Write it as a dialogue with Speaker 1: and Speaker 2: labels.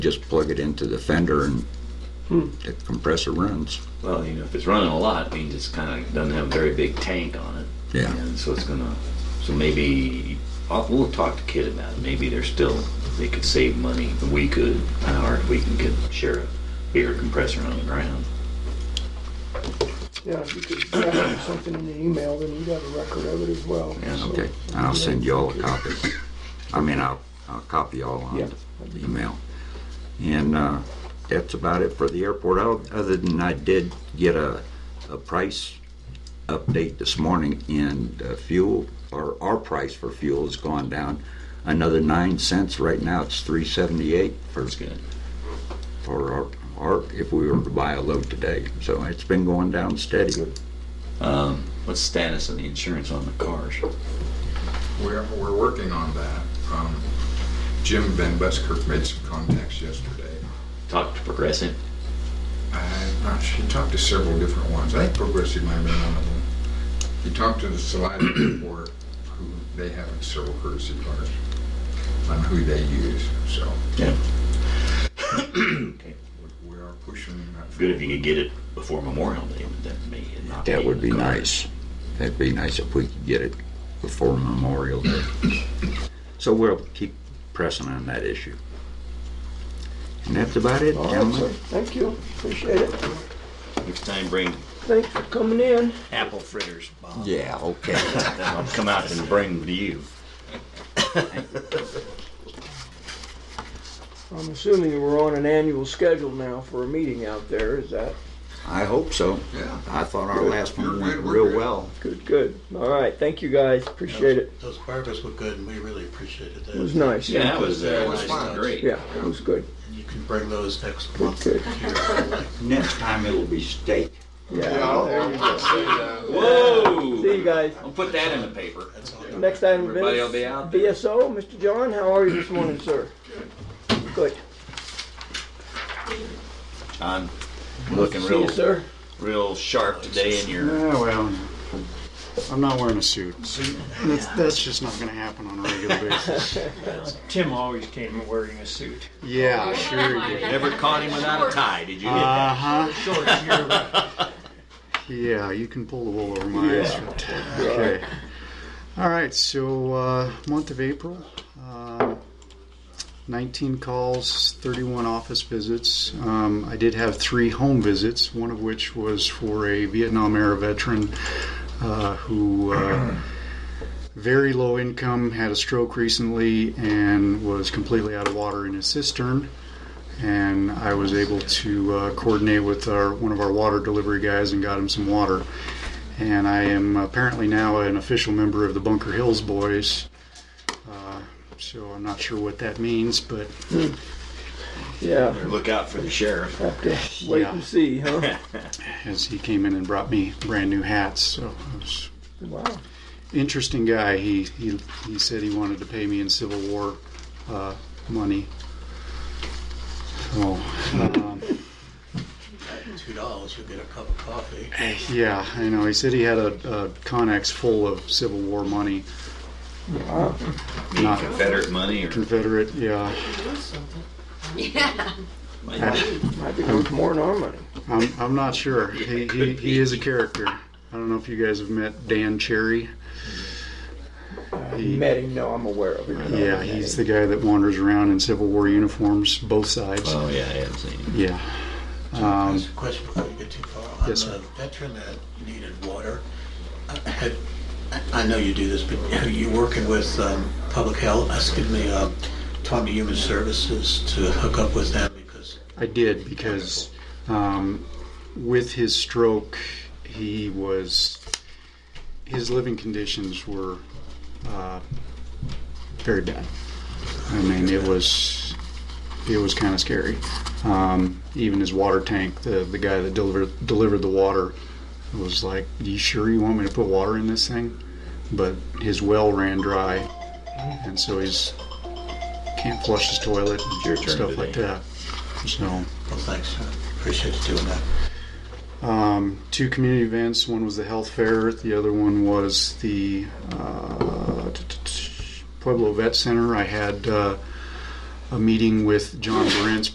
Speaker 1: just plug it into the fender and the compressor runs.
Speaker 2: Well, you know, if it's running a lot, it means it's kind of doesn't have a very big tank on it.
Speaker 1: Yeah.
Speaker 2: And so it's gonna, so maybe, I'll, we'll talk to Kid about it. Maybe they're still, they could save money. We could, or if we can get, share a bigger compressor on the ground.
Speaker 3: Yeah, if you could send something in the email, then you got a record of it as well.
Speaker 2: Yeah,
Speaker 3: so-
Speaker 1: Okay, and I'll send you all a copy. I mean, I'll, I'll copy all on
Speaker 3: Yeah.
Speaker 1: the email. And uh, that's about it for the airport, O- other than I did get a, a price update this morning and uh, fuel, or our price for fuel has gone down another nine cents. Right now, it's three seventy-eight for,
Speaker 2: That's good.
Speaker 1: for our, our, if we were to buy a load today. So it's been going down steady.
Speaker 2: Um, what's the status of the insurance on the cars?
Speaker 4: We're, we're working on that. Um, Jim Van Buskirk made some contacts yesterday.
Speaker 2: Talk to Progressive.
Speaker 4: I'm not sure, he talked to several different ones. I think Progressive might have been one of them. He talked to the Salida Airport, who, they have several courtesy cars on who they use, so
Speaker 2: Yeah.
Speaker 4: we- we are pushing that.
Speaker 2: Good if you could get it before Memorial Day, but that may not
Speaker 1: That would
Speaker 2: in
Speaker 1: be
Speaker 2: the cards.
Speaker 1: nice. That'd be nice if we could get it before Memorial Day. So we'll keep pressing on that issue. And that's about it,
Speaker 3: All right, sir.
Speaker 1: gentlemen.
Speaker 3: Thank you. Appreciate it.
Speaker 2: Next time, bring
Speaker 3: Thanks for coming in.
Speaker 2: apple fritters, Bob.
Speaker 1: Yeah, okay.
Speaker 2: I'll come out and bring them to you.
Speaker 3: I'm assuming we're on an annual schedule now for a meeting out there. Is that
Speaker 1: I hope so.
Speaker 4: Yeah.
Speaker 1: I thought our last one
Speaker 4: You're
Speaker 1: went
Speaker 4: good, we're
Speaker 1: real
Speaker 4: good.
Speaker 1: well.
Speaker 3: good? Good. All right. Thank you guys. Appreciate it.
Speaker 5: Those barbers were good, and we really appreciated that.
Speaker 3: It was nice.
Speaker 2: Yeah, that was, uh,
Speaker 5: Yeah, it was
Speaker 2: nice.
Speaker 4: fun.
Speaker 2: great.
Speaker 3: Yeah, it was good.
Speaker 5: And you can bring those next
Speaker 3: Good.
Speaker 5: month.
Speaker 3: Good.
Speaker 1: Next time it'll be steak.
Speaker 3: Yeah. there you go.
Speaker 2: Whoa!
Speaker 3: See you guys.
Speaker 2: I'll put that in the paper.
Speaker 5: That's all.
Speaker 3: Next item of
Speaker 2: Everybody will
Speaker 3: business.
Speaker 2: be out there.
Speaker 3: BSO, Mr. John, how are you this morning, sir? Good.
Speaker 2: John, looking
Speaker 3: See
Speaker 2: real,
Speaker 3: you, sir.
Speaker 2: real sharp today in your.
Speaker 6: Yeah, well, I'm not wearing a suit. That's, that's just not going to happen on a regular basis.
Speaker 7: Tim always came wearing a suit.
Speaker 6: Yeah, sure you did.
Speaker 2: Never caught him without a tie. Did you?
Speaker 6: Uh huh.
Speaker 7: Short hair, but
Speaker 6: Yeah, you can pull the wool over my eyes. Okay. All right, so uh, month of April, um, 19 calls, 31 office visits. Um, I did have three home visits, one of which was for a Vietnam era veteran uh, who. Uh, very low income, had a stroke recently, and was completely out of water in his cistern. And I was able to uh, coordinate with our, one of our water delivery guys and got him some water. And I am apparently now an official member of the Bunker Hills Boys. Uh, so I'm not sure what that means, but
Speaker 3: Yeah.
Speaker 2: Look out for the sheriff.
Speaker 3: Have to wait
Speaker 6: Yeah.
Speaker 3: and see, huh?
Speaker 6: as he came in and brought me brand new hats, so I was
Speaker 3: Wow.
Speaker 6: interesting guy. He he he said he wanted to pay me in Civil War uh, money. So um,
Speaker 5: Two dollars, you'll get a cup of coffee.
Speaker 6: yeah, I know. He said he had a, a Connex full of Civil War money,
Speaker 3: Wow.
Speaker 6: not
Speaker 2: Confederate money or
Speaker 6: Confederate. Yeah,
Speaker 3: Might be worth more than our money.
Speaker 6: I'm I'm not sure. He he, he is a character. I don't know if you guys have met Dan Cherry. He-
Speaker 3: Met him, no, I'm aware of it.
Speaker 6: yeah, he's the guy that wanders around in Civil War uniforms, both sides.
Speaker 2: Oh yeah, I haven't seen him.
Speaker 6: Yeah. Um,
Speaker 5: Just a question before you get too far.
Speaker 6: Yes,
Speaker 5: On
Speaker 6: sir.
Speaker 5: the veteran that needed water, uh, had- I- I know you do this, but are you working with um, public health, uh, excuse me, um, Department of Human Services to hook up with them because
Speaker 6: I did because um, with his stroke, he was his living conditions were uh, very bad. I mean, it was it was kind of scary. Um, even his water tank, the the guy that delivered delivered the water was like, "You sure you want me to put water in this thing?" But his well ran dry, and so he's can't flush his toilet and
Speaker 2: Your turn
Speaker 6: stuff
Speaker 2: today.
Speaker 6: like that. So,
Speaker 5: Well, thanks. I Appreciate you doing that.
Speaker 6: um, two community events. One was the health fair. The other one was the uh, t- t- t- Pueblo Vet Center. I had uh, a meeting with John Brent's